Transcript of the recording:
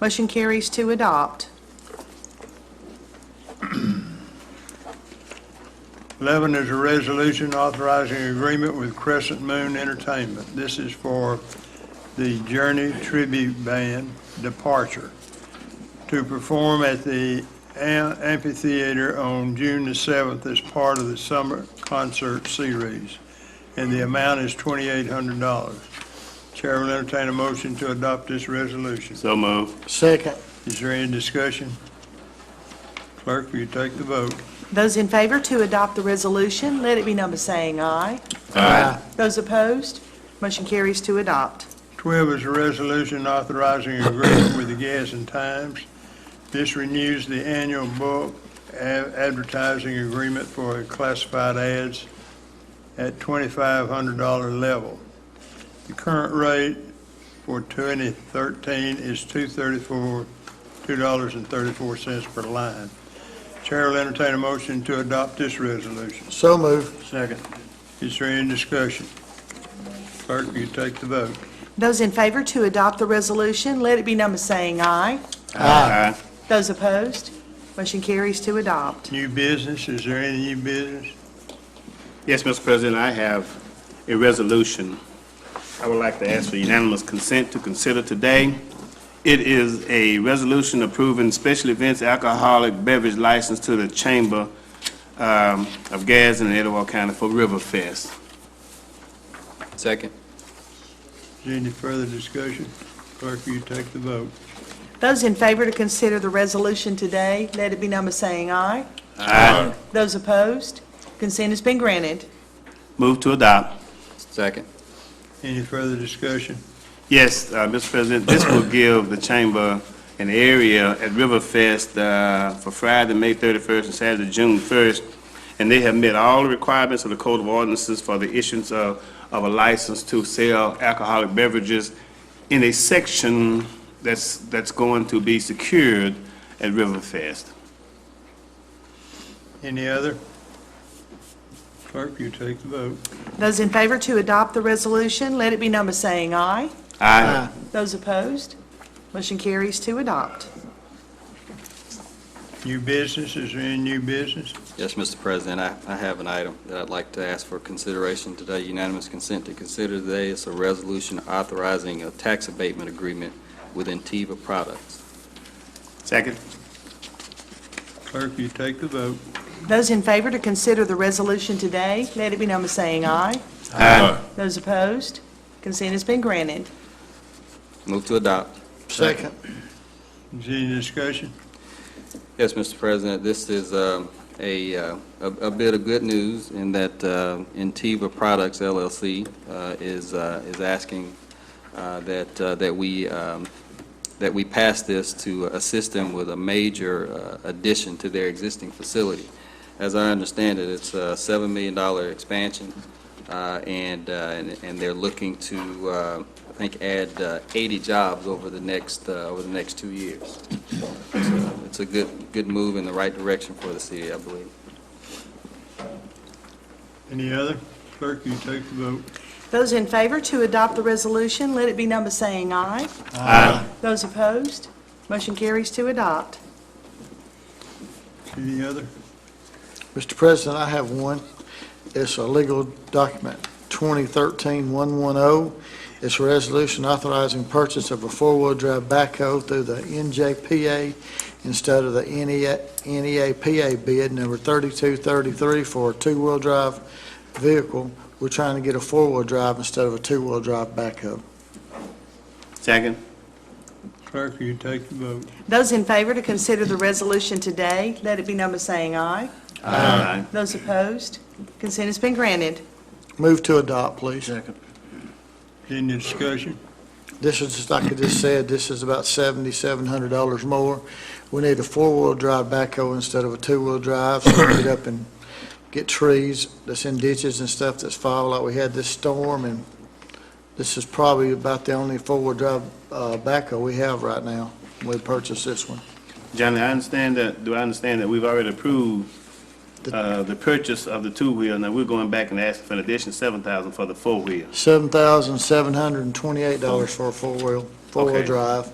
Motion carries to adopt. 11 is a resolution authorizing agreement with Crescent Moon Entertainment. This is for the Journey Tribute Band Departure to perform at the am- amphitheater on June the 7th as part of the summer concert series, and the amount is $2,800. Chair will entertain a motion to adopt this resolution. So move. Second. Is there any discussion? Clerk, will you take the vote? Those in favor to adopt the resolution, let it be number saying aye. Aye. Those opposed, motion carries to adopt. 12 is a resolution authorizing agreement with the Gas and Times. This renews the annual bulk a- advertising agreement for classified ads at $2,500 level. The current rate for 2013 is 234 $2.34 per line. Chair will entertain a motion to adopt this resolution. So move. Second. Is there any discussion? Clerk, will you take the vote? Those in favor to adopt the resolution, let it be number saying aye. Aye. Those opposed, motion carries to adopt. New business, is there any new business? Yes, Mr. President, I have a resolution I would like to ask for unanimous consent to consider today. It is a resolution approving special events alcoholic beverage license to the Chamber um, of Gas in Etowah County for River Fest. Second. Is there any further discussion? Clerk, will you take the vote? Those in favor to consider the resolution today, let it be number saying aye. Aye. Those opposed, consent has been granted. Move to adopt. Second. Any further discussion? Yes, uh, Mr. President, this will give the chamber an area at Riverfest uh, for Friday, May 31st, and Saturday, June 1st, and they have met all the requirements of the Code of Ordinances for the issuance of of a license to sell alcoholic beverages in a section that's that's going to be secured at Riverfest. Any other? Clerk, will you take the vote? Those in favor to adopt the resolution, let it be number saying aye. Aye. Those opposed, motion carries to adopt. New business, is there any new business? Yes, Mr. President, I I have an item that I'd like to ask for consideration today, unanimous consent to consider today. It's a resolution authorizing a tax abatement agreement with Intiva Products. Second? Clerk, will you take the vote? Those in favor to consider the resolution today, let it be number saying aye. Aye. Those opposed, consent has been granted. Move to adopt. Second. Is there any discussion? Yes, Mr. President, this is um, a uh, a a bit of good news in that uh, Intiva Products LLC uh, is uh, is asking uh, that uh, that we um, that we pass this to assist them with a major uh, addition to their existing facility. As I understand it, it's a $7 million expansion, uh, and uh, and and they're looking to, uh, I think, add uh, 80 jobs over the next, uh, over the next two years. So It's a good, good move in the right direction for the city, I believe. Any other? Clerk, will you take the vote? Those in favor to adopt the resolution, let it be number saying aye. Aye. Those opposed, motion carries to adopt. Any other? Mr. President, I have one. It's a legal document, 2013-110. oh. It's a resolution authorizing purchase of a four-wheel-drive backhoe through the NJPA instead of the E NEA NEAPA bid number 3233 for a two-wheel-drive vehicle. We're trying to get a four-wheel-drive instead of a two-wheel-drive backhoe. Second? Clerk, will you take the vote? Those in favor to consider the resolution today, let it be number saying aye. Aye. Those opposed, consent has been granted. Move to adopt, please. Any discussion? This is, just like I just said, this is about seventy-seven hundred dollars more. We need a four-wheel drive backhoe instead of a two-wheel drive, so we can get up and get trees that's in ditches and stuff that's fall, like we had this storm, and this is probably about the only four-wheel drive, uh, backhoe we have right now. We purchased this one. Johnny, I understand that, do I understand that we've already approved The- uh, the purchase of the two-wheel, now we're going back and asking for an additional seven thousand for the four-wheel? Seven thousand seven hundred and twenty-eight dollars for a four-wheel, four-wheel Okay. drive.